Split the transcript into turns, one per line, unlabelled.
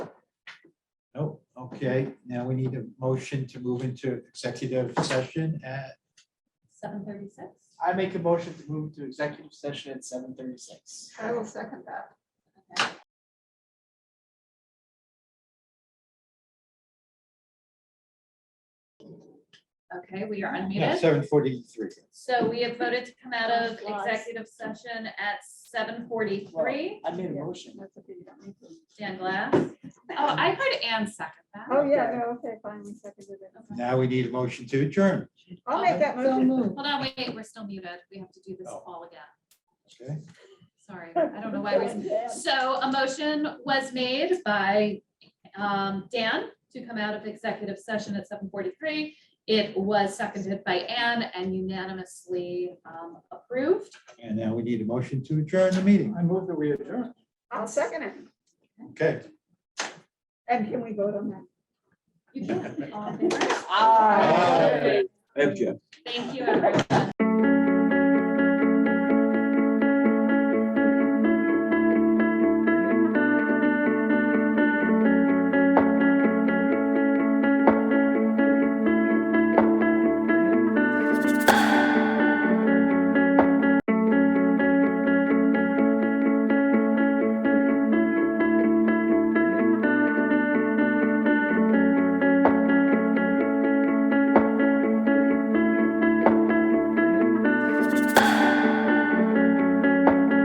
Okay, now we need a motion to move into executive session at,
Seven thirty-six?
I make a motion to move to executive session at seven thirty-six.
I will second that.
Okay, we are
yeah,
unmuted.
seven forty-three.
So we have voted to come out of
Those slides.
executive session at seven forty-three.
I made a motion.
That's okay, you don't need to.
Dan Glass. Oh, I heard Anne second that.
Oh, yeah, no, okay, fine, we seconded it.
Now we need a motion to adjourn.
I'll make that motion.
Hold on, wait, we're still muted. We have to do this
Oh.
all again.
Okay,
Sorry, I don't know why we. So a motion was made by um, Dan to come out of executive session at seven forty-three. It was seconded by Anne and unanimously um, approved.
and now we need a motion to adjourn the meeting.
I move that we adjourn.
I'll second it.
Okay.
And can we vote on that?
You can, all in favor?
Aye.
Aye.
Thank you, everyone.